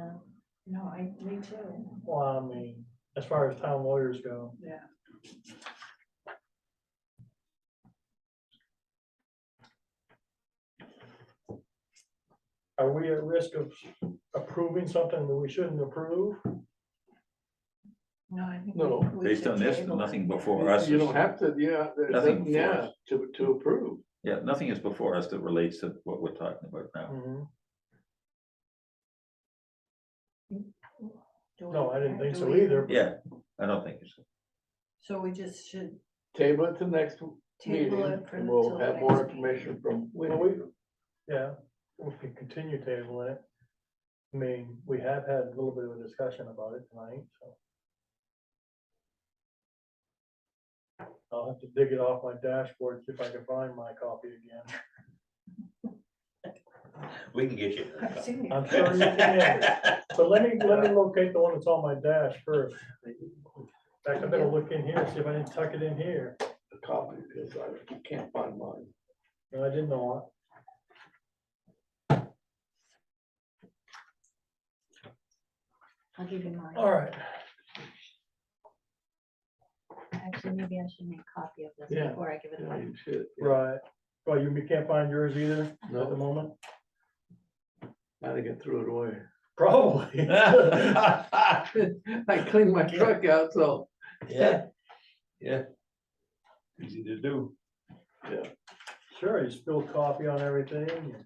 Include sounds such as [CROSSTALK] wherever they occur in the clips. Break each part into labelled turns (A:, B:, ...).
A: uh, no, I, me too.
B: Well, I mean, as far as town lawyers go.
A: Yeah.
B: Are we at risk of approving something that we shouldn't approve?
A: No, I think.
C: No,
A: we- we
D: Based
A: should
D: on this,
A: table it.
D: nothing before us.
C: You
D: is-
C: don't have to, yeah, that-
D: Nothing
C: that- yeah,
D: forced.
C: to, to approve.
D: Yeah, nothing is before us that relates to what we're talking about now.
B: Mhm.
A: Do we-
B: No, I didn't think
A: do
B: so
A: we-
B: either.
D: Yeah, I don't think it's,
A: So we just should
C: Table it to next meeting,
A: table it for. till
C: and we'll
A: the
C: have
A: next
C: more
A: meeting. [LAUGHS]
C: information from
B: Well,
C: Winnie.
B: we, yeah, we could continue tabling it. I mean, we have had a little bit of a discussion about it tonight, so. I'll have to dig it off my dashboard, see if I can find my copy again.
D: we can get you.
A: I've seen it.
B: I'm [LAUGHS] sure you can, but let me, let me locate the one that's on my dash first. In fact, I better look in here, see if I didn't tuck it in here,
C: a copy, because I can't find mine.
B: No, I did not.
A: I'll give you mine.
B: All right,
E: Actually, maybe I should make a copy of this
C: Yeah.
E: before I give it
C: Yeah,
E: away.
C: you should, yeah.
B: right, well, you can't find yours either at the
C: No,
B: moment?
C: now they get threw it away. [LAUGHS]
B: Probably. [LAUGHS]
C: I cleaned my truck out, so.
D: [LAUGHS] Yeah, yeah. Easy to do.
B: Sure, you spill coffee on everything. and-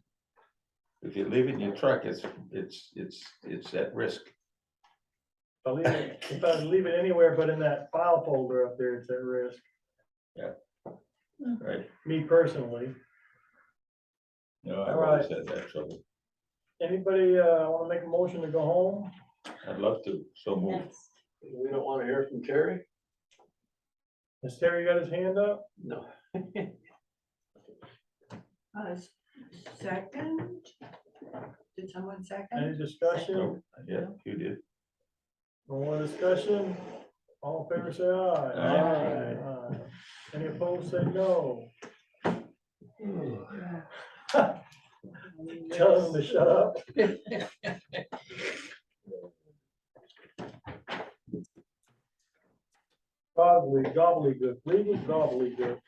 D: If you leave it in your truck, it's, it's, it's, it's at risk.
B: If I leave it, if I leave it anywhere but in that file folder up there, it's at risk,
D: Right.
B: me personally.
D: No, I've
B: All right.
D: always had that trouble.
B: Anybody, uh, wanna make a motion to go home?
D: I'd love to, so move.
E: Next.
C: We don't wanna hear from Terry?
B: Has Terry got his hand up?
C: No.
A: Uh, s- second? Did someone second?
B: Any discussion?
D: No, Yeah, you did.
B: No more discussion? All in favor, say aye.
D: Aye.
B: Aye. Any opposed, say no.
A: Yeah.
B: Tell them to shut up. Probably gobbledygook, legal gobbledygook.